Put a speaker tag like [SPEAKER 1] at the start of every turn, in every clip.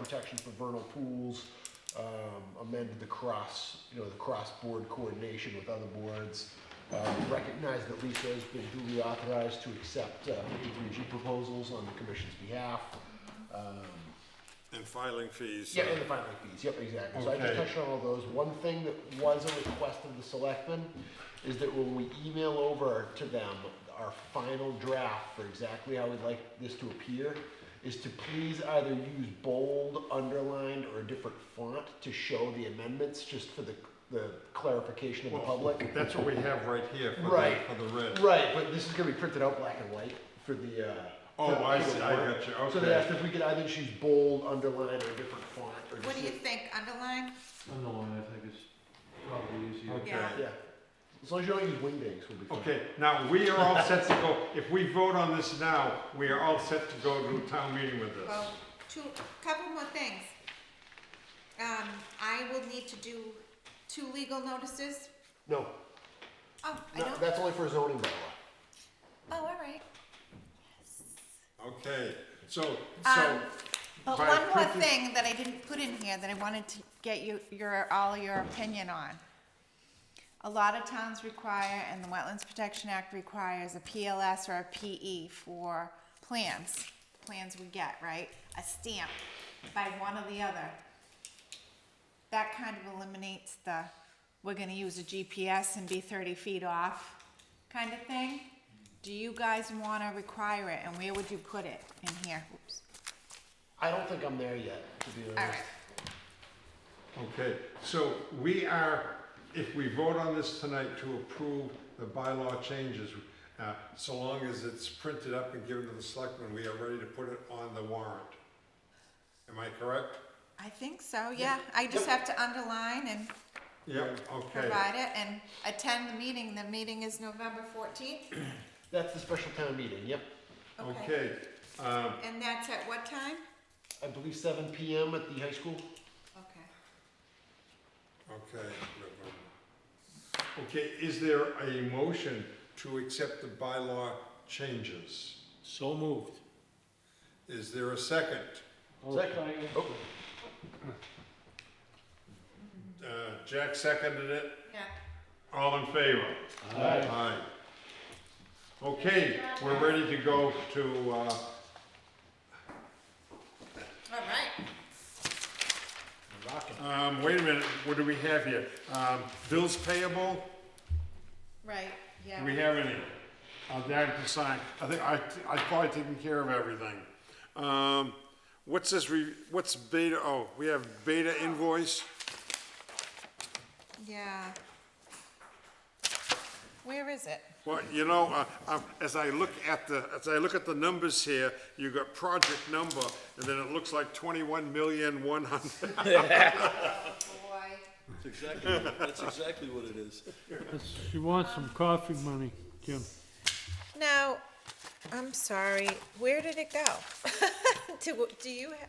[SPEAKER 1] protection for vernal pools, um, amended the cross, you know, the cross-board coordination with other boards, uh, recognized that Lisa has been duly authorized to accept uh, 53G proposals on the commission's behalf. Um,
[SPEAKER 2] And filing fees.
[SPEAKER 1] yeah,
[SPEAKER 2] uh,
[SPEAKER 1] and the filing fees, yep, exactly. So I just
[SPEAKER 2] Okay.
[SPEAKER 1] touched on all those. One thing that was a request of the selectmen is that when we email over to them our final draft for exactly how we'd like this to appear, is to please either use bold, underlined, or a different font to show the amendments, just for the, the clarification of the
[SPEAKER 2] Well,
[SPEAKER 1] public.
[SPEAKER 2] That's what we have right here for the,
[SPEAKER 1] Right.
[SPEAKER 2] for the red.
[SPEAKER 1] Right, but this is gonna be printed out black and white for the, uh.
[SPEAKER 2] Oh,
[SPEAKER 1] for-
[SPEAKER 2] I
[SPEAKER 1] for the
[SPEAKER 2] see, I
[SPEAKER 1] warrant.
[SPEAKER 2] got you,
[SPEAKER 1] So they
[SPEAKER 2] okay.
[SPEAKER 1] asked if we could either choose bold, underline, or a different font, or
[SPEAKER 3] What
[SPEAKER 1] just.
[SPEAKER 3] do you think, underline?
[SPEAKER 4] Underline, I think is probably easier.
[SPEAKER 2] Okay.
[SPEAKER 3] Yeah.
[SPEAKER 1] Yeah, as long as you don't use Wingdings, we'll be fine.
[SPEAKER 2] Okay, now, we are all set to go, if we vote on this now, we are all set to go to a town meeting with this.
[SPEAKER 3] Well, two, couple more things. Um, I will need to do two legal notices.
[SPEAKER 1] No,
[SPEAKER 3] Oh, I
[SPEAKER 1] no,
[SPEAKER 3] don't,
[SPEAKER 1] that's only for zoning bylaw.
[SPEAKER 3] oh, all right.
[SPEAKER 2] Okay, so, so,
[SPEAKER 3] Um, But
[SPEAKER 2] by
[SPEAKER 3] one more
[SPEAKER 2] printing-
[SPEAKER 3] thing that I didn't put in here that I wanted to get you, your, all your opinion on. A lot of towns require, and the Wetlands Protection Act requires a PLS or a PE for plans, plans we get, right? A stamp by one or the other. That kind of eliminates the, we're gonna use a GPS and be thirty feet off kind of thing. Do you guys wanna require it, and where would you put it in here? Oops.
[SPEAKER 1] I don't think I'm there yet, to be
[SPEAKER 3] All
[SPEAKER 1] honest.
[SPEAKER 3] right.
[SPEAKER 2] okay, so we are, if we vote on this tonight to approve the bylaw changes, uh, so long as it's printed up and given to the selectmen, we are ready to put it on the warrant. Am I correct?
[SPEAKER 3] I think so, yeah. I just have to underline and
[SPEAKER 2] Yep, okay.
[SPEAKER 3] provide it and attend the meeting. The meeting is November fourteenth.
[SPEAKER 1] That's the special town meeting, yep.
[SPEAKER 3] Okay.
[SPEAKER 2] Okay, um,
[SPEAKER 3] And that's at what time?
[SPEAKER 1] I believe seven PM at the high school.
[SPEAKER 3] Okay.
[SPEAKER 2] Okay. November. Okay, is there a motion to accept the bylaw changes?
[SPEAKER 4] So moved.
[SPEAKER 2] Is there a second?
[SPEAKER 1] Second. Oh,
[SPEAKER 2] Uh, Jack seconded it.
[SPEAKER 3] Yeah.
[SPEAKER 2] All in favor? Aye. Okay, we're ready to go to, uh,
[SPEAKER 3] All right.
[SPEAKER 2] um, wait a minute, what do we have here? Um, Bills payable?
[SPEAKER 3] Right,
[SPEAKER 2] Do
[SPEAKER 3] yeah.
[SPEAKER 2] we have any? Uh, that to sign. I think I, I probably taken care of everything. Um, what's this re, what's beta, oh, we have beta invoice?
[SPEAKER 3] Yeah. Where is it?
[SPEAKER 2] Well, you know, uh, um, as I look at the, as I look at the numbers here, you got project number, and then it looks like twenty-one million, one hundred.
[SPEAKER 3] Boy.
[SPEAKER 5] That's exactly, that's exactly what it is.
[SPEAKER 4] She wants some coffee money, Jim.
[SPEAKER 3] Now, I'm sorry, where did it go? Do, do you, ha-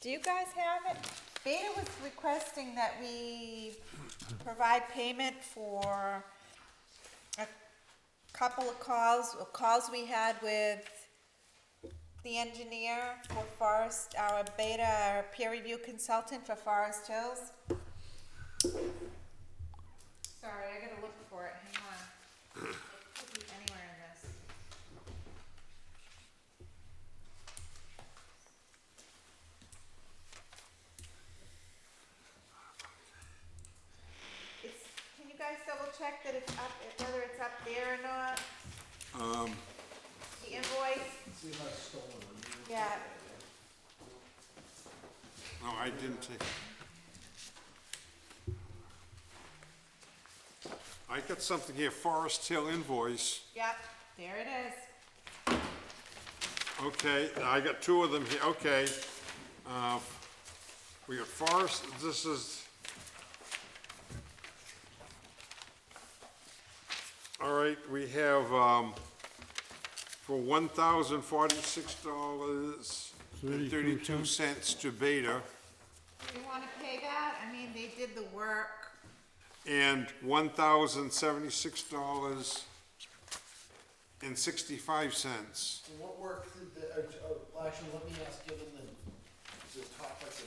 [SPEAKER 3] do you guys have it? Beta was requesting that we provide payment for a couple of calls, or calls we had with the engineer for Forest, our Beta, our peer review consultant for Forest Hills. Sorry, I gotta look for it, hang on could be anywhere in this. It's, can you guys double check that it's up, whether it's up there or not?
[SPEAKER 2] Um,
[SPEAKER 3] The invoice? Yeah,
[SPEAKER 2] no, I didn't take. I got something here, Forest Hill invoice.
[SPEAKER 3] yep, there it is.
[SPEAKER 2] Okay, I got two of them here, okay. Uh, We got Forest, this is... All right, we have, um, for one thousand forty-six dollars and thirty-two cents to Beta,
[SPEAKER 3] Do you wanna pay that? I mean, they did the work.
[SPEAKER 2] and one thousand seventy-six dollars and sixty-five cents.
[SPEAKER 6] What work did the, uh, uh, actually, let me ask, given the, the topic of